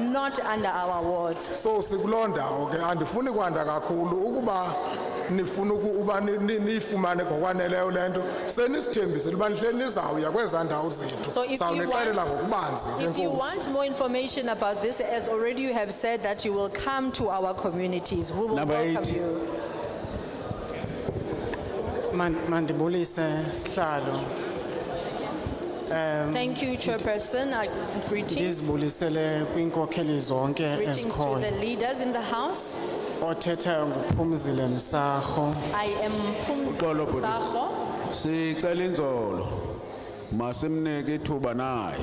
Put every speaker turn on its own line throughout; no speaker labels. not under our wards.
so sikulonda ke andifuni kwanda kakhulu ukuba nifuna uku- uba ni- ni- niyifumane ngokwaneleyo le nto senisithembisile uba nihleli nizawuya kwezaa ndawo zethu
So if you
sawunixelela
want-
ngokubanzi ke
If you
nkosi
want more information about this, as already you have said that you will come to our communities, we will
Number eight.
welcome you.
Man- mandibulise sihlalo
Thank you, Chairperson. I- Greetings.
ndizibulisele kwiinkokheli zonke
Greetings to the
ezikhoyo
leaders in the house.
othethayo nguphumzile msarho
I am
Uxolo,
Pumzile
Bhuti.
Sakho.
Sicela inzolo masimnike ithuba naye.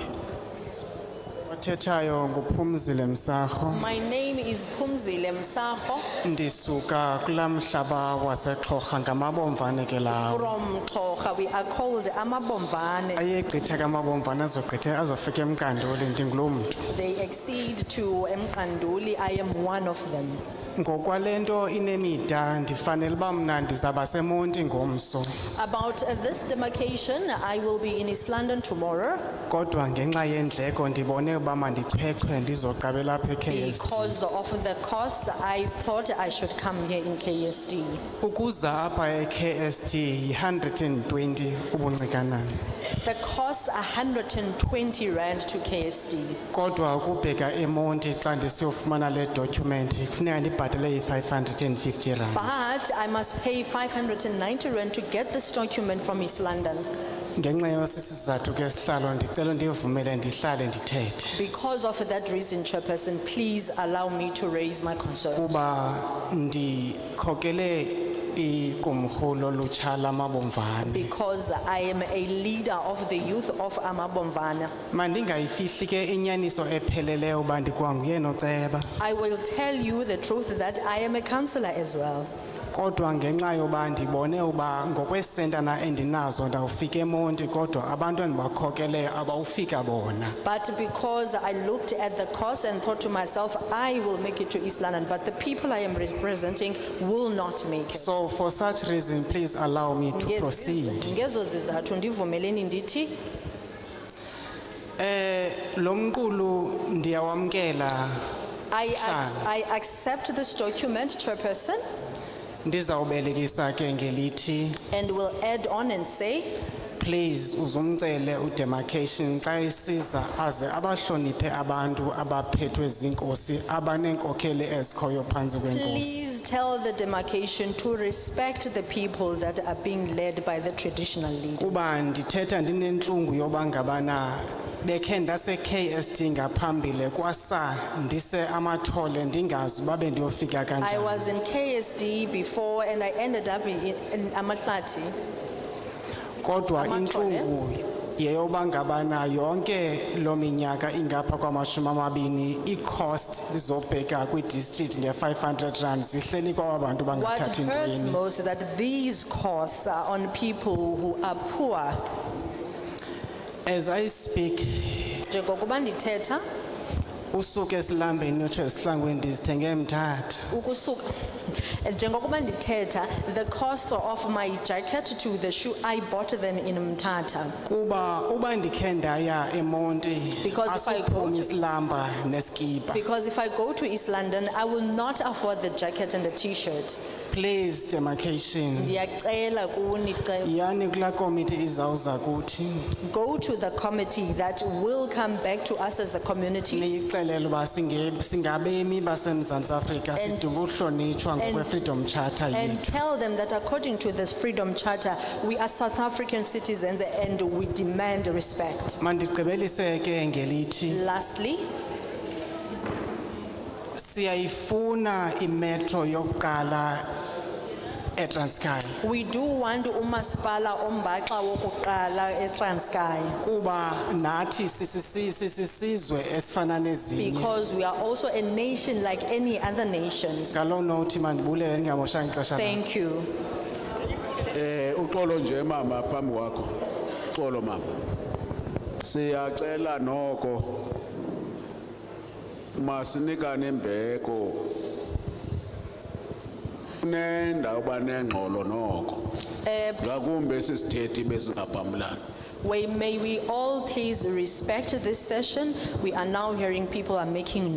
othethayo nguphumzile msarho
My name is Pumzile Msako
ndisuka kulaa mhlaba wasexhorha ngamabomvane ke
Um,
lawo
from Kocha. We are called Amabomvane.
ayegqitha kamabomvane azogqithe azofika emkandoli ndinguloo mntu
They exceed to Mkanduli. I am one of them.
ngokwale nto inemida ndifanele uba mna ndizawuba semonti ngomso
About uh, this demarcation, I will be in East London tomorrow
kodwa ngenxa yeendleko ndibone uba mandiqheqhe ndizoqabela apha ekhst
because of the costs. I thought I should come here in KSD.
Ukuza apa e-KST yi-120 ubuncinanani
The cost 120 rand to KSD.
kodwa ukubheka eMonti xa ndisiyofumana le document kufuneka ndibhatale i-550 rand.
But I must pay 590 rand to get this document from East London.
Ngenxa yosisizathu ke sihlalo ndicela ndivumele ndihlale ndithethe
Because of that reason, Chairperson, please allow me to raise my concerns.
kuba ndikhokele iqumrhu lolutsha lamabomvane.
Because I am a leader of the youth of Amabomvana.
Mandingayifihli ke inyaniso epheleleyo uba ndikwanguye noceba
I will tell you the truth that I am a councillor as well.
kodwa ngenxa yoba ndibone uba ngokwesentana endinazo ndawufika emonti kodwa abantu endibakhokeleyo abawufika bona
But because I looked at the cost and thought to myself, I will make it to East London, but the people I am representing will not make it.
so for such reason please allow me to
Ngezi-
proceed
Ngezo zizathu ndivumeleni ndithi
eh lo mqulu ndiyawamkela
I ac-
Sihlalo.
I accept this document, Chairperson,
ndizawubelekisa ke ngelithi
and will add on and say,
please uzumcele udemarcation xa isiza aze abahloniphe abantu abaphethwe zinkosi abaneenkokheli ezikhoyo phantsi kwenkosi
Please tell the demarcation to respect the people that are being led by the traditional leaders.
kuba ndithetha ndinentlungu yoba ngabana bekhe ndase-ksd ngaphambili kwasa ndise amathole ndingazi uba bendiyofika
I
kanjani
was in KSD before and I ended up in in Amatlati.
kodwa
Amathole?
intlungu yeyoba ngabana yonke loo minyaka ingapha kwamashumi amabini ii-cost zobheka kwidistrict nge-500 rand zihleli kwaba bantu
What
bangathathi
hurts
ntweni
most is that these costs are on people who are poor.
as i speak
Njengokuba ndithetha
usuke esilambeni utsho esihlangwini ndizithenge emthatha
ukusuka njengokuba ndithetha the cost of my jacket to the shoe I bought them in Mthatha.
kuba uba ndikhe ndaya emonti
Because if I go
asiphumi
to-
isilamba neskipa
Because if I go to East London, I will not afford the jacket and the T-shirt.
please demarcation
Ndiyacela kuni ce-
yani kulaa komiti izawuza kuthi
go to the committee that will come back to us as the communities
niyixelele uba singe- singabemi basemzantsi afrika sidinga uhlonitshwa ngokwe-freedom charter
and
yethu
tell them that according to this freedom charter, we are South African citizens and we demand respect.
mandigqibelise ke ngelithi
Lastly,
siyayifuna imetro yokuqala etranskai
we do want umaspala ombaxa wokuqala eTranskei
kuba nathi sisisi- sisisizwe esifana nezinye
because we are also a nation like any other nations.
ngaloo nothi mandibulele ndingamoshanga ixesha lam.
Thank you.
Eh uxolo nje mama phambi kwakho. Xolo mama. Siyacela noko masinikane imbeko. Nenda uba nengxolo noko.
Eh,
Ngakumbe sisithethi besingaphambilana.
We- May we all please respect this session. We are now hearing people are making